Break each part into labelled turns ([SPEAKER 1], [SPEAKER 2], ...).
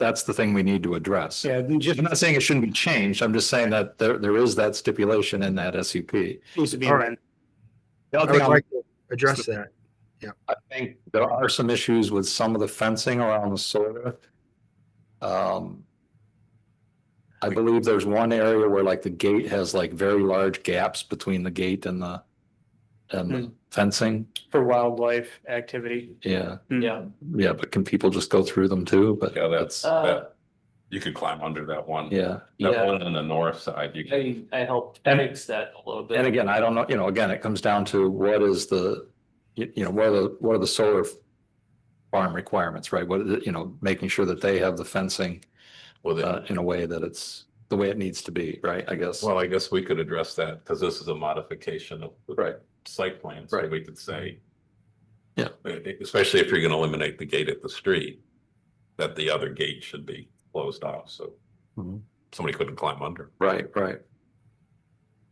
[SPEAKER 1] that's the thing we need to address.
[SPEAKER 2] Yeah, it
[SPEAKER 1] I'm not saying it shouldn't be changed. I'm just saying that there, there is that stipulation in that SUP.
[SPEAKER 2] needs to be
[SPEAKER 3] All
[SPEAKER 2] amended.
[SPEAKER 1] The
[SPEAKER 3] I
[SPEAKER 1] other
[SPEAKER 3] would
[SPEAKER 1] thing I'm-
[SPEAKER 3] like to address that.
[SPEAKER 1] I think there are some issues with some of the fencing around the solar. Um. I believe there's one area where like the gate has like very large gaps between the gate and the. And the fencing,
[SPEAKER 2] for wildlife activity.
[SPEAKER 1] yeah,
[SPEAKER 4] Yeah,
[SPEAKER 1] yeah, but can people just go through them too? But
[SPEAKER 5] Yeah, that's,
[SPEAKER 4] uh,
[SPEAKER 5] that, you could climb under that one.
[SPEAKER 1] yeah.
[SPEAKER 5] That
[SPEAKER 4] yeah,
[SPEAKER 5] one on the north side, you can,
[SPEAKER 4] I, I helped fix that a little bit.
[SPEAKER 1] And again, I don't know, you know, again, it comes down to what is the, you, you know, what are the, what are the solar farm requirements, right? What, are the- you know, making sure that they have the fencing
[SPEAKER 5] well,
[SPEAKER 1] uh,
[SPEAKER 5] then,
[SPEAKER 1] in a way that it's the way it needs to be, right? I guess.
[SPEAKER 5] well, I guess we could address that, because this is a modification of. the
[SPEAKER 1] Right.
[SPEAKER 5] Site plan, so
[SPEAKER 1] Right.
[SPEAKER 5] we could say.
[SPEAKER 1] Yeah.
[SPEAKER 5] e- Especially if you're gonna eliminate the gate at the street, that the other gate should be closed off, so.
[SPEAKER 1] Mhm.
[SPEAKER 5] Somebody couldn't climb under.
[SPEAKER 1] Right, right.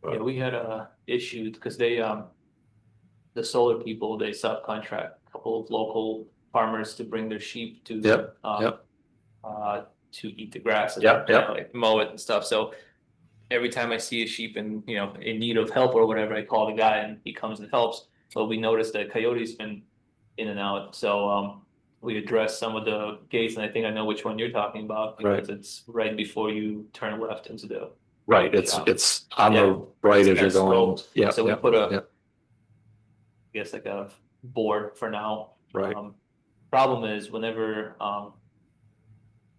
[SPEAKER 5] but-
[SPEAKER 4] Yeah, we had a issue because they, um, the solar people, they subcontract a couple of local farmers to bring their sheep to.
[SPEAKER 1] Yep,
[SPEAKER 4] um,
[SPEAKER 1] yep.
[SPEAKER 4] Uh, to eat the grass. and,
[SPEAKER 1] Yep,
[SPEAKER 4] you
[SPEAKER 1] yep.
[SPEAKER 4] know, like Mow it and stuff, so every time I see a sheep and, you know, in need of help or whatever, I call the guy and he comes and helps. But we noticed that coyotes been in and out, so, um, we addressed some of the gates and I think I know which one you're talking about.
[SPEAKER 1] Right.
[SPEAKER 4] Because it's right before you turn left into the
[SPEAKER 1] Right, it's,
[SPEAKER 4] Yeah.
[SPEAKER 1] it's on
[SPEAKER 4] Yeah.
[SPEAKER 1] the right as
[SPEAKER 4] It's
[SPEAKER 1] you're
[SPEAKER 4] kinda
[SPEAKER 1] going.
[SPEAKER 4] sloped,
[SPEAKER 1] Yeah,
[SPEAKER 4] so we
[SPEAKER 1] yeah,
[SPEAKER 4] put a-
[SPEAKER 1] yeah,
[SPEAKER 4] I guess like a board for now.
[SPEAKER 1] Right,
[SPEAKER 4] Um, Problem is whenever, um.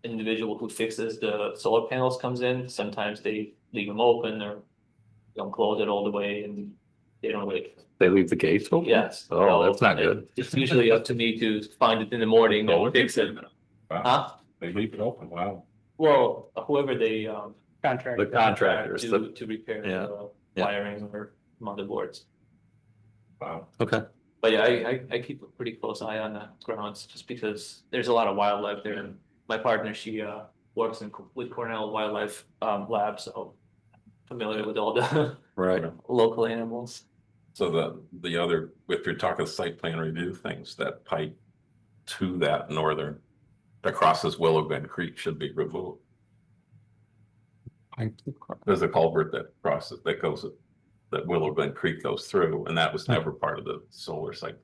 [SPEAKER 4] Individual who fixes the solar panels comes in, sometimes they leave them open or. Don't close it all the way and they don't wait,
[SPEAKER 1] they leave the gates open?
[SPEAKER 4] yes.
[SPEAKER 1] Oh,
[SPEAKER 4] so
[SPEAKER 1] that's not good.
[SPEAKER 4] It's usually up to me to find it in the morning
[SPEAKER 5] Oh,
[SPEAKER 4] and fix it,
[SPEAKER 5] Wow,
[SPEAKER 4] huh?
[SPEAKER 5] they leave it open, wow.
[SPEAKER 4] Well, whoever they, um.
[SPEAKER 2] Contract.
[SPEAKER 1] The contractors,
[SPEAKER 4] To,
[SPEAKER 1] the-
[SPEAKER 4] to repair
[SPEAKER 1] Yeah,
[SPEAKER 4] the
[SPEAKER 1] yeah.
[SPEAKER 4] wiring or motherboards.
[SPEAKER 5] Wow.
[SPEAKER 1] okay,
[SPEAKER 4] But yeah, I, I, I keep a pretty close eye on the grounds just because there's a lot of wildlife there. And My partner, she, uh, works in, Co- with Cornell Wildlife, um, Lab, so familiar with all the
[SPEAKER 1] right.
[SPEAKER 4] local animals.
[SPEAKER 5] So the, the other, if you're talking site plan review things, that pipe to that northern, that crosses Willow Bend Creek should be removed. There's a culvert that crosses, that goes, that Willow Bend Creek goes through, and that was
[SPEAKER 3] Hmm.
[SPEAKER 5] never part of the solar site.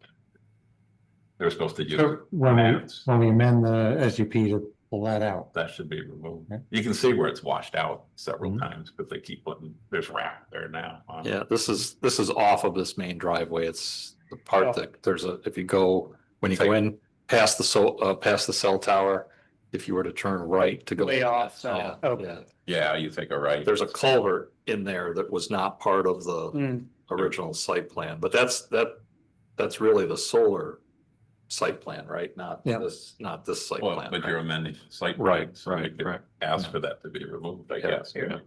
[SPEAKER 5] They're supposed to use,
[SPEAKER 3] So
[SPEAKER 5] it.
[SPEAKER 3] when we, when we amend the SUP to pull that out.
[SPEAKER 5] that should be removed.
[SPEAKER 3] Yeah. Hmm.
[SPEAKER 5] You can see where it's washed out several
[SPEAKER 1] Mhm.
[SPEAKER 5] times, but they keep putting, there's rap there now. huh?
[SPEAKER 1] Yeah, this is, this is off of this main driveway. It's the part that, there's a, if you go, when you go in, past the so, uh, past the cell tower, if you were to turn right to go.
[SPEAKER 2] Way off,
[SPEAKER 4] Oh,
[SPEAKER 2] so-
[SPEAKER 1] Yeah,
[SPEAKER 2] okay.
[SPEAKER 1] yeah.
[SPEAKER 5] Yeah, you take a right.
[SPEAKER 1] There's a culvert in there that was not part of the
[SPEAKER 2] Hmm.
[SPEAKER 1] original site plan, but that's, that, that's really the solar site plan, right? Not
[SPEAKER 3] Yeah.
[SPEAKER 1] this, not this site
[SPEAKER 5] Well,
[SPEAKER 1] plan.
[SPEAKER 5] but
[SPEAKER 1] right?
[SPEAKER 5] you're amending the site. plan,
[SPEAKER 1] Right,
[SPEAKER 5] so you
[SPEAKER 1] right,
[SPEAKER 5] could
[SPEAKER 1] right.
[SPEAKER 5] Ask for that to be removed, I
[SPEAKER 1] Yeah,
[SPEAKER 5] guess.
[SPEAKER 1] yeah.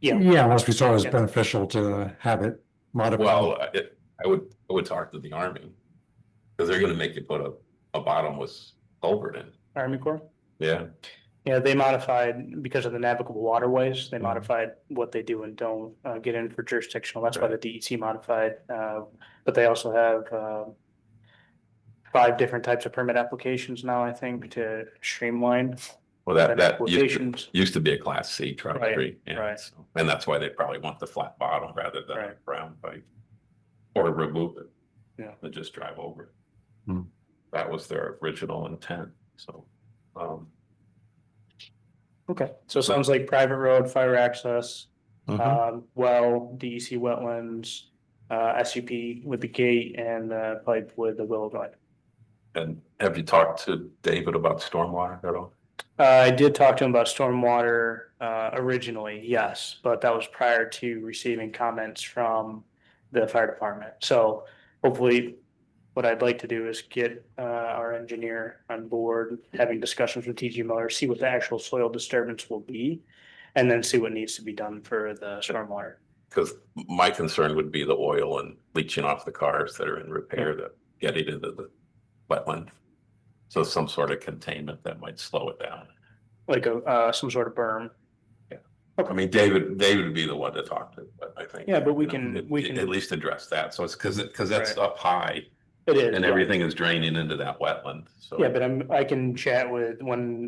[SPEAKER 2] Yeah.
[SPEAKER 3] Yeah, unless we saw it as
[SPEAKER 2] Yeah.
[SPEAKER 3] beneficial to have it modified.
[SPEAKER 5] Well, I- it, I would, I would talk to the army. Cause they're gonna make you put a, a bottomless culvert in.
[SPEAKER 2] Army Corps.
[SPEAKER 5] Yeah.
[SPEAKER 2] Yeah, they modified because of the navigable waterways, they modified what they do and don't uh get in for jurisdictional, that's why the DEC modified, uh, but they also have uh. Five different types of permit applications now, I think, to streamline.
[SPEAKER 5] Well, that,
[SPEAKER 2] permit
[SPEAKER 5] that used to,
[SPEAKER 2] Applications,
[SPEAKER 5] used to be a class C truck
[SPEAKER 2] Right,
[SPEAKER 5] tree. yeah,
[SPEAKER 2] right.
[SPEAKER 5] so- And that's why they probably want the flat bottom rather than a
[SPEAKER 2] Right.
[SPEAKER 5] round pipe. Or remove it.
[SPEAKER 2] Yeah.
[SPEAKER 5] And just drive over it.
[SPEAKER 1] Hmm.
[SPEAKER 5] That was their original intent, so, um.
[SPEAKER 2] okay, so it sounds like private road, fire access,
[SPEAKER 1] Mhm.
[SPEAKER 2] um, well, DEC wetlands. Uh, SUP with the gate and uh pipe with the willow vine.
[SPEAKER 5] And have you talked to David about stormwater at all?
[SPEAKER 2] Uh, I did talk to him about stormwater, uh, originally, yes, but that was prior to receiving comments from the fire department. So hopefully, what I'd like to do is get, uh, our engineer on board, having discussions with TG Miller, see what the actual soil disturbance will be. And then see what needs to be done for the stormwater.
[SPEAKER 5] Because my concern would be the oil and leaching off the cars that are in repair that get it into the wetland. So some sort of containment that might slow it down.
[SPEAKER 2] Like a, uh, some sort of berm.
[SPEAKER 5] I mean, David, David would be the one to talk to, but I think.
[SPEAKER 2] Yeah, but we
[SPEAKER 5] you know,
[SPEAKER 2] can-
[SPEAKER 5] at-
[SPEAKER 2] we can-
[SPEAKER 5] At least address that. So it's because, because that's
[SPEAKER 2] Right.
[SPEAKER 5] up high
[SPEAKER 2] It is.
[SPEAKER 5] and
[SPEAKER 2] yeah.
[SPEAKER 5] everything is draining into that wetland, so.
[SPEAKER 2] Yeah, but I'm, I can chat with, when